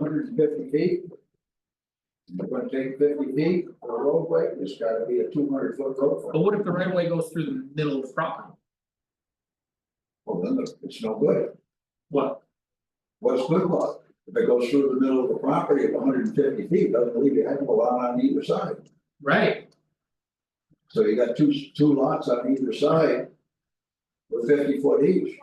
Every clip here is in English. hundred and fifty feet. If I take fifty feet for a roadway, it's gotta be a two hundred foot But roadway, what if the right of way goes through the middle of the property? well, then the- it's no good. What, What's good luck? If it goes through the middle of the property at hundred and fifty feet, doesn't leave you a heck of a lot on either side. right, So you got two, two lots on either side. With fifty foot each.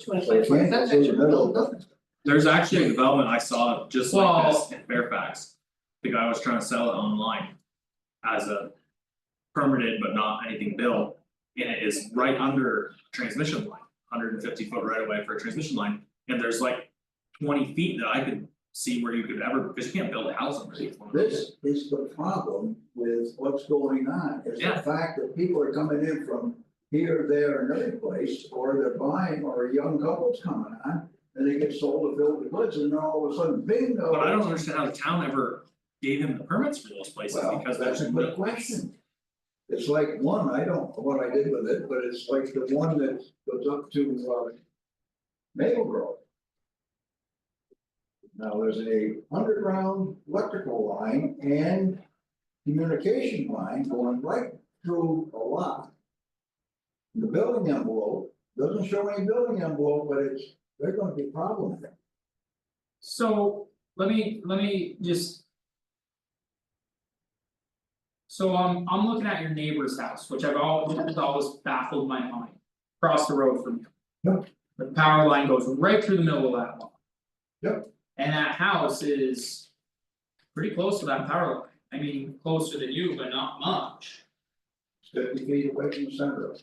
So you can't go through the middle of it. There's actually a development I saw just like Well- this in Fairfax. The guy was trying to sell it online. As a. Permitted but not anything built, and it is right under transmission line, hundred and fifty foot right away for a transmission line, and there's like. Twenty feet that I could see where you could ever, because you can't build a house under these. This is the problem with what's going on, is the Yeah. fact that people are coming in from here, there, and other place, or they're buying, or a young couple's coming on. And they get sold a bill of goods, and then all of a sudden bingo. But I don't understand how the town ever gave him the permits for those places Well, because that's there's a no- good question. It's like one, I don't know what I did with it, but it's like the one that goes up to uh. Maple Grove. Now, there's a underground electrical line and communication line going right through a lot. The building envelope, doesn't show any building envelope, but it's, they're gonna be problems. so let me, let me just. So um, I'm looking at your neighbor's house, which I've always, has always baffled my mind, across the road from you. Yep. The power line goes right through the middle of that lot. Yep. And that house is. Pretty close to that power line, I mean, closer than you, but not much. Fifty feet away from the center of it.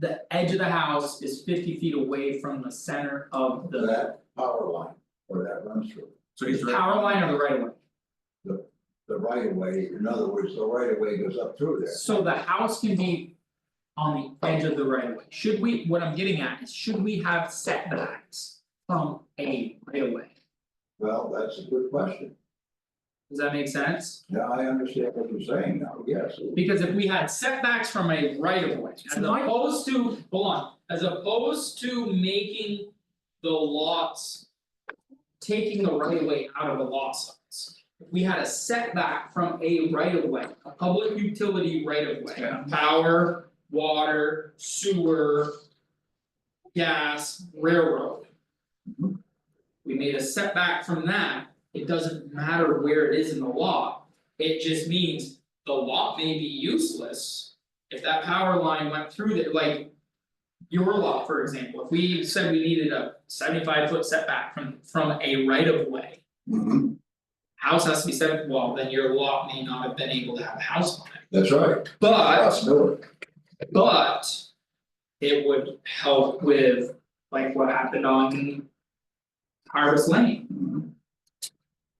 the edge of the house is fifty feet away from the center of the that power line, or that runs through. So he's right. power line or the right of way. the right of way, in other words, the right of way goes up through there. So the house can be on the edge of the right of way. Should we, what I'm getting at is, should we have setbacks from a right of way? Well, that's a good question. Does that make sense? Now, I understand what you're saying now, yes. Because if we had setbacks from a right of way, as So my- opposed to, hold on, as opposed to making the lots. Taking the right of way out of the lot size, if we had a setback from a right of way, a public utility right of way. Yeah. Power, water, sewer. Gas, railroad. Mhm. We made a setback from that, it doesn't matter where it is in the lot, it just means the lot may be useless. If that power line went through there, like. Your lot, for example, if we said we needed a seventy five foot setback from from a right of way. Mhm, House has to be seven, well, then your lot may not have been able to have a house on it, That's right. but Possibility. but. It would help with like what happened on. Harvest Lane. Mhm.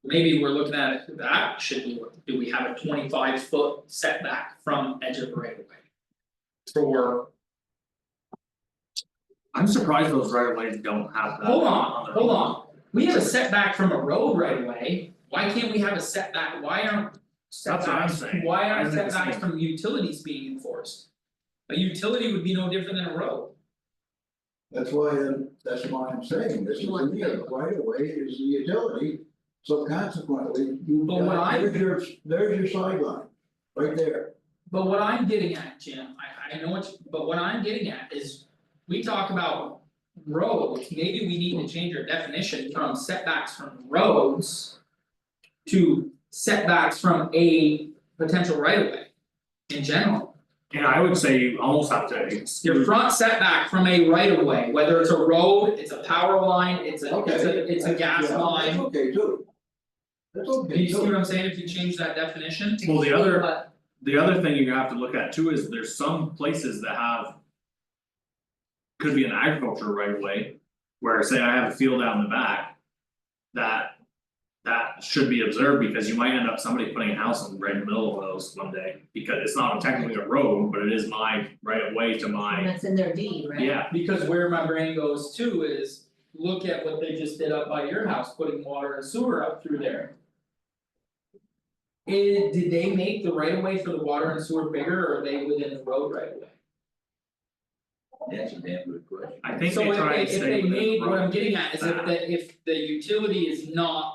Maybe we're looking at it, that should we, do we have a twenty five foot setback from edge of the right of way? For, I'm surprised those right of ways don't have that. hold on, their hold own. on, we have a setback from a road right of way, why can't we have a setback, why aren't what I'm setbacks, saying. why I aren't think it's setbacks me. from utilities being enforced? A utility would be no different than a road, That's why, uh, that's why I'm saying this is You want- in the right of way is the utility. So consequently, you, But what I- there's your, there's your sideline, right there. but what I'm getting at, Jim, I I know what, you- but what I'm getting at is. We talk about roads, maybe we need to change our definition from setbacks from roads. to setbacks from a potential right of way. In general, And I would say you almost have to exclude your front setback from a right of way, whether it's a road, it's a power line, it's a, it's a, Okay. it's a gas Yeah, That's line. okay too. That's Do okay you see what too. I'm saying, if you change that definition? Well, the other, But- the other thing you're gonna have to look at too is there's some places that have. Could be an agriculture right away, where say I have a field out in the back. That. That should be observed because you might end up somebody putting a house in the right middle of those one day, because it's not technically a road, but it is my right of way to And my, that's in their deed, right? yeah. Because where my brain goes to is, look at what they just did up by your house, putting water and sewer up through there. Eh, did they make the right of way for the water and sewer bigger, or are they within the road right of way? That's a damn good question. I think they try and So if they, stay if they within the made, what road. I'm getting at is if the, if the utility is not